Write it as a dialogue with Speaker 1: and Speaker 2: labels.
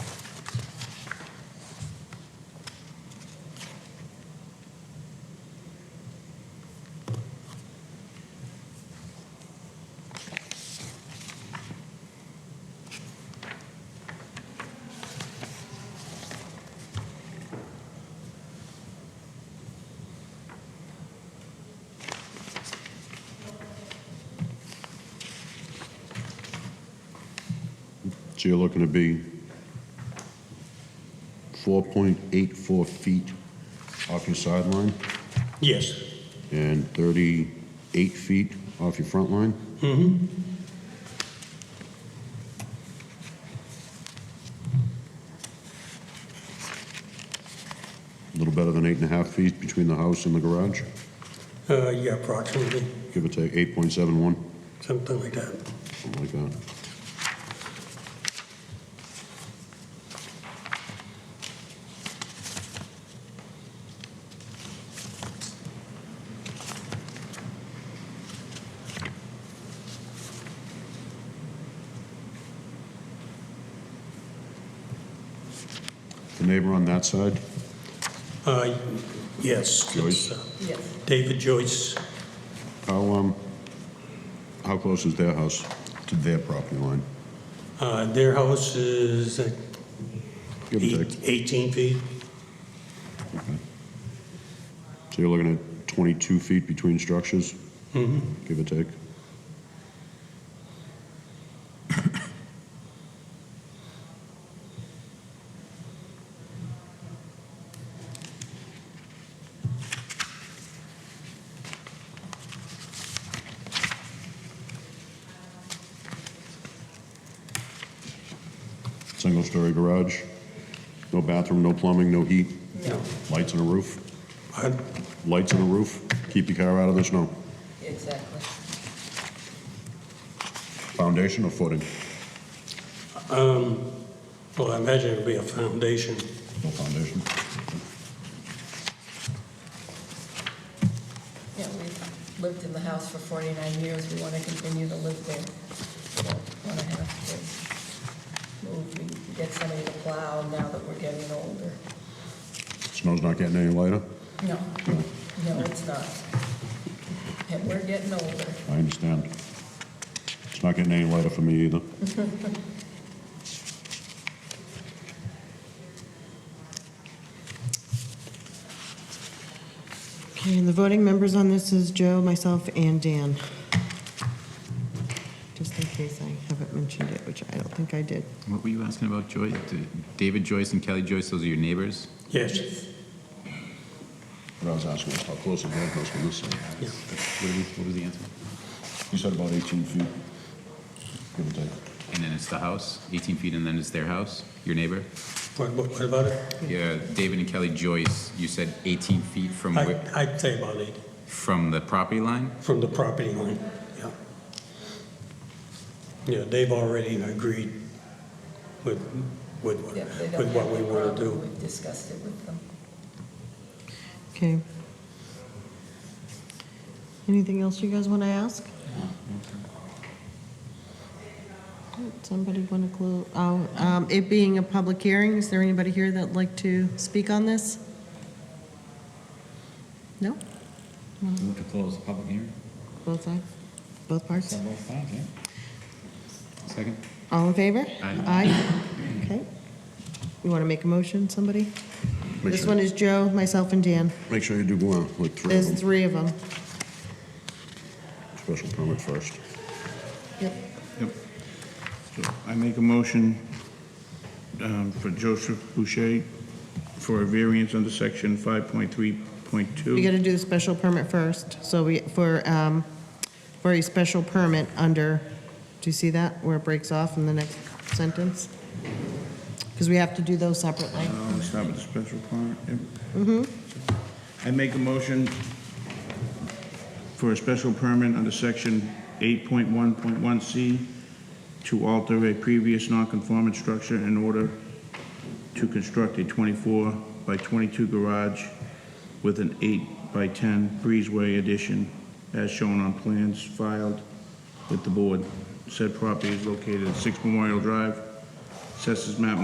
Speaker 1: So you're looking to be 4.84 feet off your sideline
Speaker 2: Yes.
Speaker 1: and 38 feet off your front line? Mm-hmm. A little better than eight and a half feet between the house and the garage,
Speaker 2: Uh, yeah, approximately,
Speaker 1: give or take 8.71,
Speaker 2: something like that.
Speaker 1: something like that. The neighbor on that side,
Speaker 2: Uh, yes.
Speaker 1: Joyce?
Speaker 2: it's, uh,
Speaker 3: Yes.
Speaker 2: David Joyce,
Speaker 1: how, um, how close is their house to their property line?
Speaker 2: uh, their house is uh,
Speaker 1: Give or take.
Speaker 2: eight- 18 feet.
Speaker 1: So you're looking at 22 feet between structures? Give or take? Single-story garage? No bathroom, no plumbing, no heat?
Speaker 3: No,
Speaker 1: Lights and a roof?
Speaker 2: Uh,
Speaker 1: lights on the roof, keep your car out of the snow.
Speaker 3: exactly.
Speaker 1: Foundation or footing?
Speaker 2: Well, I imagine it'll be a foundation.
Speaker 1: No foundation.
Speaker 3: Yeah, we've lived in the house for 49 years, we want to continue to live there. Want to have to move, we can get somebody to plow now that we're getting older.
Speaker 1: Snow's not getting any lighter?
Speaker 3: No, no, it's not. And we're getting older.
Speaker 1: I understand. It's not getting any lighter for me either.
Speaker 4: Okay, and the voting members on this is Joe, myself, and Dan. Just in case I haven't mentioned it, which I don't think I did.
Speaker 5: What were you asking about, Joyce? D- David Joyce and Kelly Joyce, those are your neighbors?
Speaker 2: Yes,
Speaker 1: What I was asking was how close is that house from this side?
Speaker 2: Yeah.
Speaker 5: What are we- what was the answer?
Speaker 1: You said about 18 feet, give or take.
Speaker 5: And then it's the house, 18 feet, and then it's their house, your neighbor?
Speaker 2: what what- what about it?
Speaker 5: Yeah, David and Kelly Joyce, you said 18 feet from,
Speaker 2: I-
Speaker 5: where-
Speaker 2: I'd say about eight,
Speaker 5: from the property line?
Speaker 2: from the property line, yeah. Yeah, they've already agreed with, with what-
Speaker 3: Yeah, they don't
Speaker 2: with what
Speaker 3: have
Speaker 2: we
Speaker 3: a
Speaker 2: want to
Speaker 3: problem.
Speaker 2: do.
Speaker 3: We've discussed it with them.
Speaker 4: Okay. Anything else you guys want to ask? Somebody want to close, oh, um, it being a public hearing, is there anybody here that'd like to speak on this? No?
Speaker 6: Move to close the public hearing.
Speaker 4: Both sides? Both parts?
Speaker 6: Several times, yeah?
Speaker 5: Second?
Speaker 4: All in favor?
Speaker 5: Aye.
Speaker 4: Okay. You want to make a motion, somebody?
Speaker 1: Make
Speaker 4: This
Speaker 1: sure-
Speaker 4: one is Joe, myself, and Dan.
Speaker 1: Make sure you do go out, like three
Speaker 4: There's
Speaker 1: of them,
Speaker 4: three of them.
Speaker 1: special permit first.
Speaker 4: Yep.
Speaker 7: Yep. So I make a motion um, for Joseph Boucher for a variance under section
Speaker 4: We got
Speaker 7: 5.3.2.
Speaker 4: to do the special permit first, so we, for, um, for a special permit under, do you see that, where it breaks off in the next sentence? Because we have to do those separately.
Speaker 7: Um, Start with the special permit. Mm-hmm. I make a motion for a special permit under section 8.1.1C to alter a previous non-conforming structure in order to construct a 24 by 22 garage with an 8 by 10 breezeway addition as shown on plans filed with the board. Said property is located at 6 Memorial Drive, Assessors Map